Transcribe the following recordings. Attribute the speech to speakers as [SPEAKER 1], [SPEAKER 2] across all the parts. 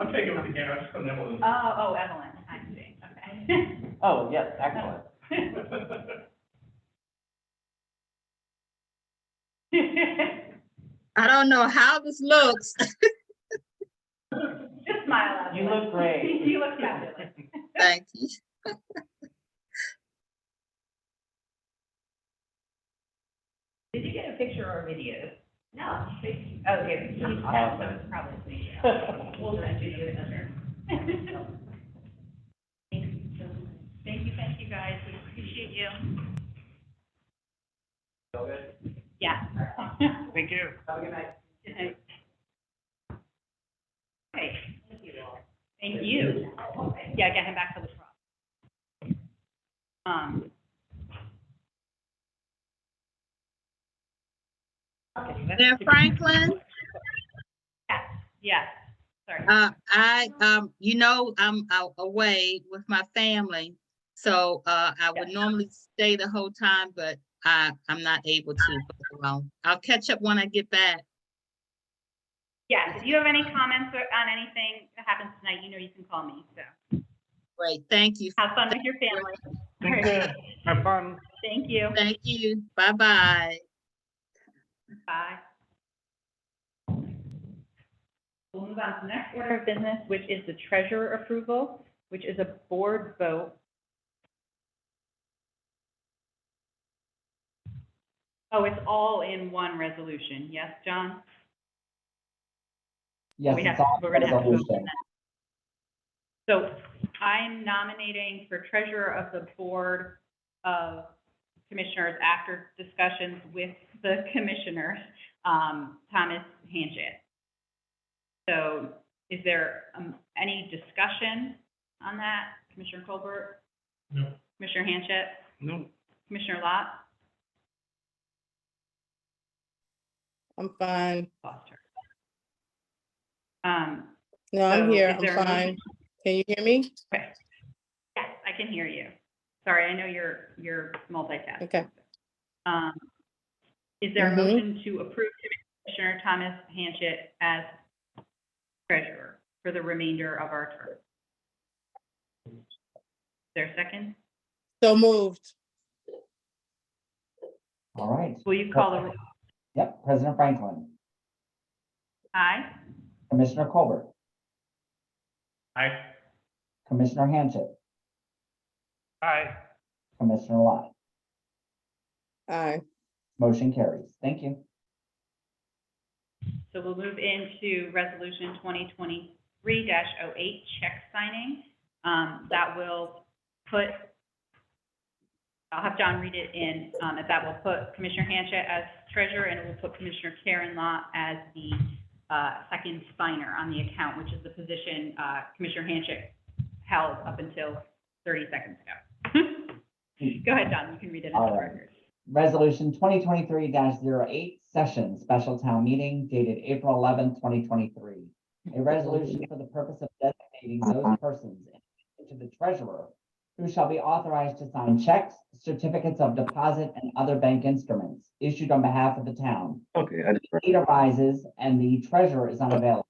[SPEAKER 1] I'm taking with the gas and then we'll.
[SPEAKER 2] Oh, oh, Evelyn, I see, okay.
[SPEAKER 3] Oh, yes, excellent.
[SPEAKER 4] I don't know how this looks.
[SPEAKER 2] Just smile at
[SPEAKER 3] You look great.
[SPEAKER 2] You look fabulous.
[SPEAKER 4] Thank you.
[SPEAKER 2] Did you get a picture or a video? No. Oh, here, you
[SPEAKER 3] have
[SPEAKER 2] so it's probably a video. We'll just do the picture. Thank you, thank you guys, we appreciate you. Yeah.
[SPEAKER 1] Thank you.
[SPEAKER 2] Okay. Thank you. Yeah, get him back to the truck. Um.
[SPEAKER 4] Mayor Franklin,
[SPEAKER 2] Yeah, sorry.
[SPEAKER 4] uh, I, um, you know, I'm out away with my family. So, uh, I would normally stay the whole time, but I, I'm not able to. Well, I'll catch up when I get back.
[SPEAKER 2] Yes, if you have any comments or on anything that happens tonight, you know you can call me, so.
[SPEAKER 4] Great, thank you.
[SPEAKER 2] Have fun with your family.
[SPEAKER 1] Thank you. Have fun.
[SPEAKER 2] Thank you.
[SPEAKER 4] Thank you. Bye-bye.
[SPEAKER 2] Bye. We'll move on to the next order of business, which is the treasurer approval, which is a board vote. Oh, it's all in one resolution. Yes, John?
[SPEAKER 3] Yes,
[SPEAKER 2] We
[SPEAKER 3] it's
[SPEAKER 2] have,
[SPEAKER 3] all
[SPEAKER 2] we're gonna have to vote on
[SPEAKER 3] resolution.
[SPEAKER 2] that. So I'm nominating for treasurer of the Board of Commissioners after discussions with the commissioners, um, Thomas Hanchett. So is there, um, any discussion on that? Commissioner Colbert,
[SPEAKER 1] No,
[SPEAKER 2] Commissioner Hanchett,
[SPEAKER 1] no.
[SPEAKER 2] Commissioner Lot?
[SPEAKER 5] I'm fine.
[SPEAKER 2] Lost her. Um,
[SPEAKER 5] No, I'm
[SPEAKER 2] So,
[SPEAKER 5] here.
[SPEAKER 2] is
[SPEAKER 5] I'm
[SPEAKER 2] there a motion?
[SPEAKER 5] fine. Can you hear me?
[SPEAKER 2] Okay. Yes, I can hear you. Sorry, I know you're, you're multitasking.
[SPEAKER 5] Okay.
[SPEAKER 2] Um, Is there a
[SPEAKER 5] Mhm.
[SPEAKER 2] motion to approve Commissioner Thomas Hanchett as treasurer for the remainder of our term? Is there a second?
[SPEAKER 5] So moved.
[SPEAKER 3] All right.
[SPEAKER 2] Will you call the, roll?
[SPEAKER 3] Yep, President Franklin,
[SPEAKER 2] aye?
[SPEAKER 3] Commissioner Colbert,
[SPEAKER 1] Aye.
[SPEAKER 3] Commissioner Hanchett,
[SPEAKER 1] Aye.
[SPEAKER 3] Commissioner Lott.
[SPEAKER 5] Aye.
[SPEAKER 3] Motion carries. Thank you.
[SPEAKER 2] So we'll move into Resolution 2023-08, check signing. Um, That will put, I'll have John read it in, um, and that will put Commissioner Hanchett as treasurer, and it will put Commissioner Karen Law as the uh, second signer on the account, which is the position uh, Commissioner Hanchett held up until 30 seconds ago. Go ahead, John, you can read it into
[SPEAKER 3] All
[SPEAKER 2] the
[SPEAKER 3] right.
[SPEAKER 2] record.
[SPEAKER 3] Resolution twenty twenty-three 8 session, special town meeting dated April eleventh, twenty twenty-three. A resolution for the purpose of designating those persons to the treasurer who shall be authorized to sign checks, certificates of deposit, and other bank instruments issued on behalf of the town.
[SPEAKER 6] Okay, I just,
[SPEAKER 3] need arises and the treasurer is unavailable,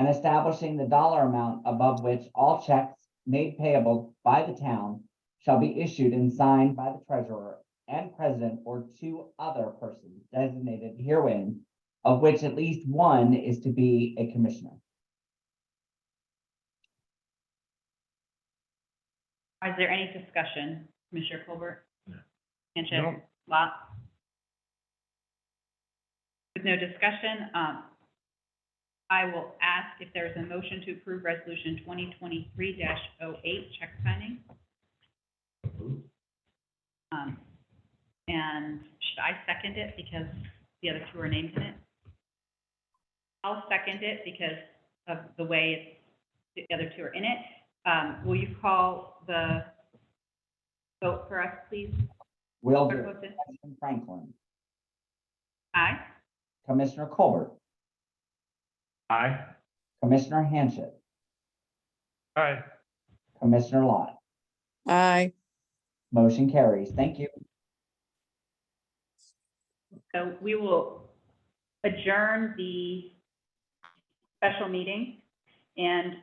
[SPEAKER 3] and establishing the dollar amount above which all checks made payable by the town shall be issued and signed by the treasurer and president or two other persons designated herein, of which at least one is to be a commissioner.
[SPEAKER 2] Is there any discussion, Commissioner Colbert? Hanchett?
[SPEAKER 1] No.
[SPEAKER 2] Lot? With no discussion, um, I will ask if there's a motion to approve Resolution 2023-08, check signing. Um, And should I second it because the other two are named in it? I'll second it because of the way it's- the other two are in it. Um, Will you call the vote for us, please?
[SPEAKER 3] Will
[SPEAKER 2] Clerk
[SPEAKER 3] do.
[SPEAKER 2] Woodson?
[SPEAKER 3] President Franklin,
[SPEAKER 2] Aye.
[SPEAKER 3] Commissioner Colbert,
[SPEAKER 1] Aye.
[SPEAKER 3] Commissioner Hanchett,
[SPEAKER 1] Aye.
[SPEAKER 3] Commissioner Lott.
[SPEAKER 5] Aye.
[SPEAKER 3] Motion carries. Thank you.
[SPEAKER 2] So we will adjourn the special meeting And